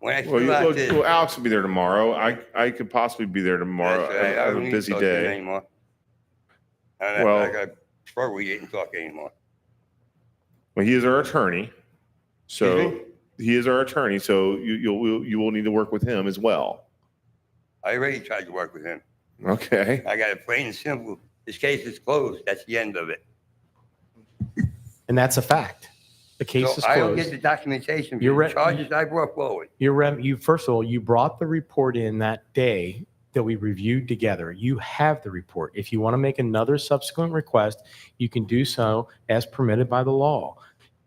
When I Well, you, feel well, like this. well, Alex will be there tomorrow. I I could possibly be there tomorrow. That's I, right. I have don't a need to busy talk to you day. Anymore. I, well, Well- I, I struggle with getting talk anymore. Well, he is our attorney, Excuse so he is our attorney. So you you'll you will need to work with him as well. I already tried to work with him. Okay. I got it plain and simple. This case is closed. That's the end of it. And that's a fact. The case is So I don't get the closed. documentation for You're the right. charges I brought forward. Your rem, you, first of all, you brought the report in that day that we reviewed together. You have the report. If you want to make another subsequent request, you can do so as permitted by the law.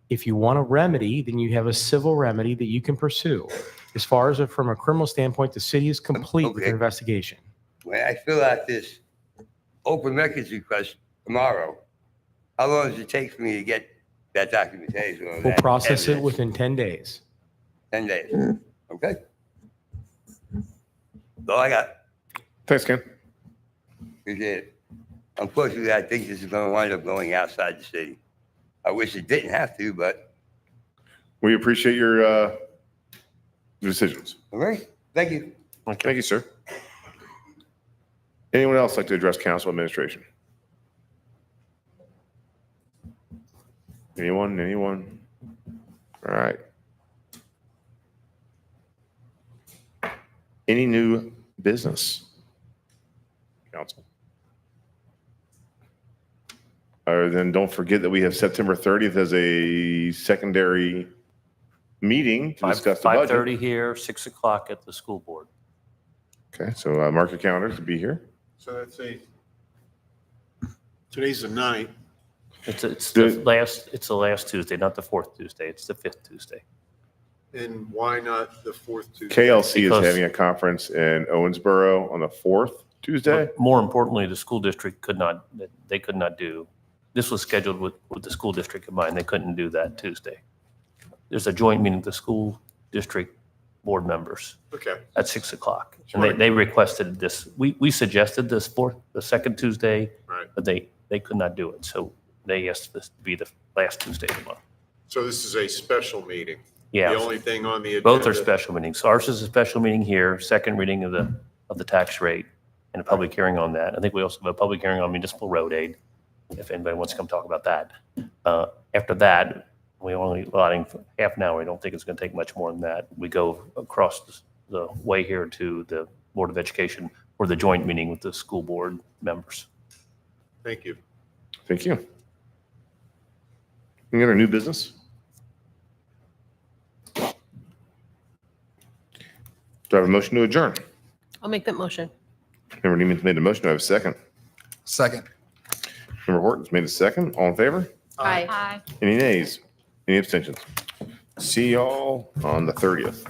If you want a remedy, then you have a civil remedy that you can pursue. As far as from a criminal standpoint, the city is complete with Okay. their investigation. When I fill out this open records request tomorrow, how long does it take for me to get that documentation? or We'll that process it Hmm. evidence? within 10 days. 10 days. Okay? So I got, Thanks, Ken. appreciate it. Unfortunately, I think this is going to wind up going outside the city. I wish it didn't have to, but, We appreciate your uh, decisions. all right, thank you. Thank you, sir. Anyone else like to address council administration? Anyone, anyone? All right. Any new business? Council? Other than, don't forget that we have September 30th as a secondary meeting to Five- discuss the budget. 5:30 here, 6 o'clock at the school board. Okay, so uh, mark your calendars to be here. So that's a, today's the ninth. It's, it's the The- last, it's the last Tuesday, not the fourth Tuesday, it's the fifth Tuesday. and why not the fourth Tuesday? KLC is Because- having a conference in Owensboro on the fourth Tuesday. But More importantly, the school district could not, they could not do, this was scheduled with, with the school district in mind, they couldn't do that Tuesday. There's a joint meeting of the school district board members Okay, at 6 o'clock. And they, they requested this, we, we suggested this fourth, the second Tuesday, right. but they, they could not do it. So they asked this to be the last Tuesday of the month. So this is a special meeting. Yeah. The only thing on the agenda. Both are special meetings. Ours is a special meeting here, second reading of the, of the tax rate and a public hearing on that. I think we also have a public hearing on municipal road aid, if anybody wants to come talk about that. Uh, After that, we only allotting for half an hour. I don't think it's going to take much more than that. We go across the- the way here to the Board of Education for the joint meeting with the school board members. Thank you. Thank you. We got our new business? Do I have a motion to adjourn? I'll make that motion. Member Neiman's made a motion. Do I have a second? Second. Member Horton's made a second. All in favor? Aye. Any nays? Any abstentions? See y'all on the thirtieth.